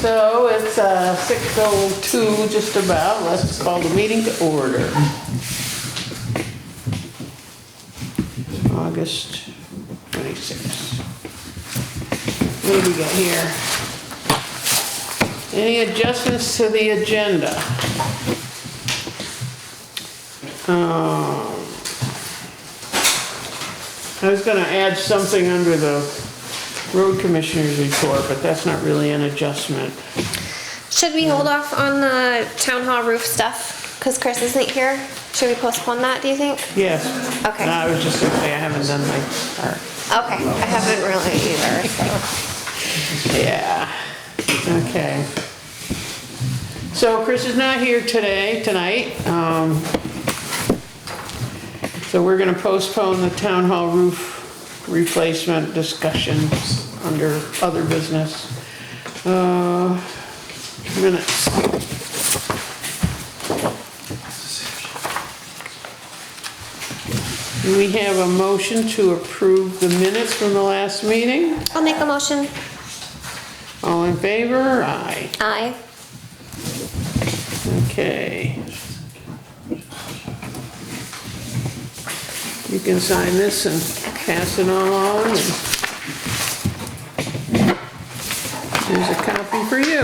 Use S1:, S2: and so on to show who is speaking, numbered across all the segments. S1: So it's uh, 6:02 just about. Let's call the meeting to order. August 26th. What do we got here? Any adjustments to the agenda? Um, I was gonna add something under the road commissioner's report, but that's not really an adjustment.
S2: Should we hold off on the town hall roof stuff? Because Chris isn't here? Should we postpone that, do you think?
S1: Yes.
S2: Okay.
S1: No, I was just gonna say, I haven't done my part.
S2: Okay, I haven't really either, so.
S1: Yeah, okay. So Chris is not here today, tonight. um, So we're gonna postpone the town hall roof replacement discussions under other business. Uh, Minutes. We have a motion to approve the minutes from the last meeting.
S2: I'll make a motion.
S1: All in favor? Aye.
S2: Aye.
S1: Okay. You can sign this and pass it all on. and- Here's a copy for you.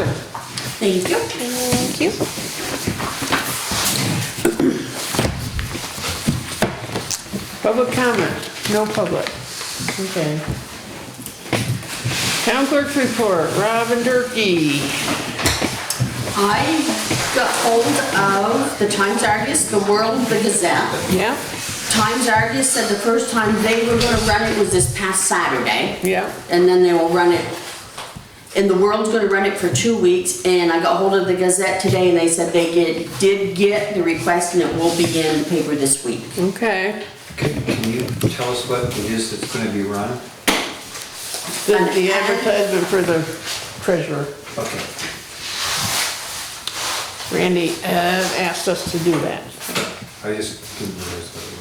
S3: Thank you.
S2: Thank you.
S1: Public comment? No public. Okay. Town clerk's report, Robin Durkey.
S3: I got hold of the Times Argus, the World, the Gazette.
S1: Yeah?
S3: Times Argus said the first time they were gonna run it was this past Saturday.
S1: Yeah.
S3: And then they will run it, and the World's gonna run it for two weeks. And I got hold of the Gazette today and they said they get, did get the request and it will be in the paper this week.
S1: Okay.
S4: Can can you tell us what it is that's gonna be run?
S1: The the advertisement for the treasurer.
S4: Okay.
S1: Randy uh, asked us to do that.
S4: I just didn't realize what it was.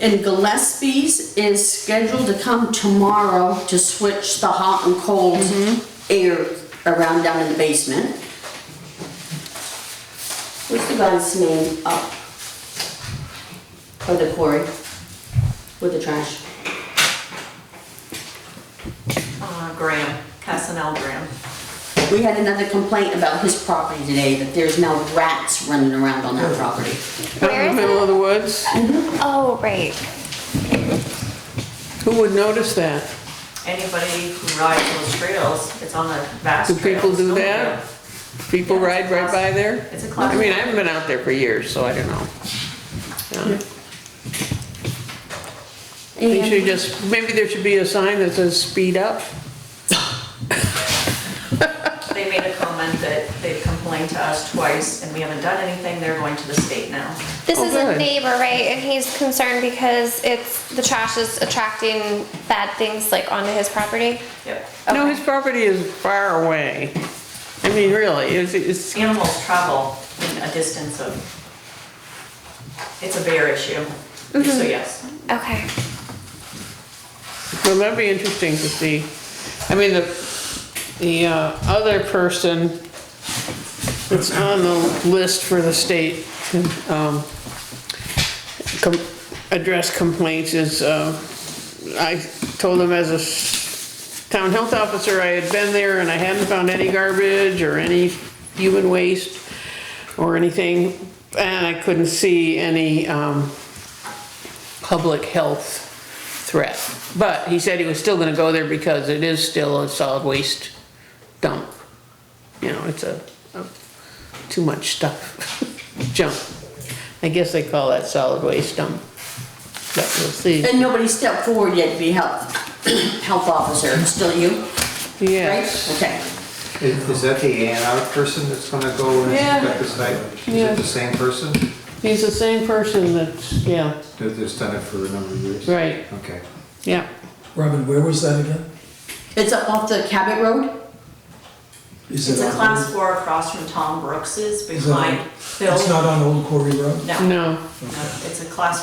S3: And Gillespie's is scheduled to come tomorrow to switch the hot and cold air around down in the basement. What's the guy's name up? By the quarry, with the trash.
S5: Uh, Graham, Casanel Graham.
S3: We had another complaint about his property today, that there's now rats running around on that property.
S1: Out in
S2: Where
S1: the
S2: is
S1: middle of the woods.
S2: Oh, right.
S1: Who would notice that?
S5: Anybody who rides those trails, it's on the vast
S1: Do
S5: trail.
S1: people do
S5: it's
S1: that? People
S5: Yeah,
S1: ride
S5: it's a
S1: right by
S5: class-
S1: there?
S5: it's a class
S1: I mean, I
S5: one.
S1: haven't been out there for years, so I don't know. Yeah. They should
S3: And
S1: just, maybe there should be a sign that says speed up.
S5: They made a comment that they've complained to us twice and we haven't done anything. They're going to the state now.
S2: This
S1: Oh,
S2: is a
S1: good.
S2: neighbor, right? And he's concerned because it's, the trash is attracting bad things like onto his property.
S5: Yep.
S1: No, his property is far away. I mean, really, it's, it's,
S5: Animals travel in a distance of, it's a bear issue.
S1: Mm-hmm.
S5: So yes,
S2: Okay.
S1: well, that'd be interesting to see. I mean, the, the uh, other person that's on the list for the state, um, com- address complaints is, uh, I told him as a s- town health officer, I had been there and I hadn't found any garbage or any human waste or anything, and I couldn't see any, um, public health threat. But he said he was still gonna go there because it is still a solid waste dump. You know, it's a, a- too much stuff, junk. I guess they call that solid waste dump, but we'll see.
S3: and nobody stepped forward yet to be health, health officer, still you, right?
S1: Yes.
S3: Okay.
S4: Is is that the A and R person that's gonna go and
S1: Yeah.
S4: inspect the site? Is
S1: Yeah.
S4: it the same person?
S1: He's the same person that's, yeah,
S4: That- That's done it for a number of years?
S1: right,
S4: Okay.
S1: yeah.
S6: Robin, where was that again?
S3: It's up off the Cabot Road?
S6: Is
S5: it's
S6: it
S5: a
S6: on
S5: class
S6: Old-
S5: four across from Tom Brooks's
S6: Is it on-
S5: behind Phil.
S6: It's not on Old Quarry Road?
S5: No, no,
S1: No,
S5: it's a class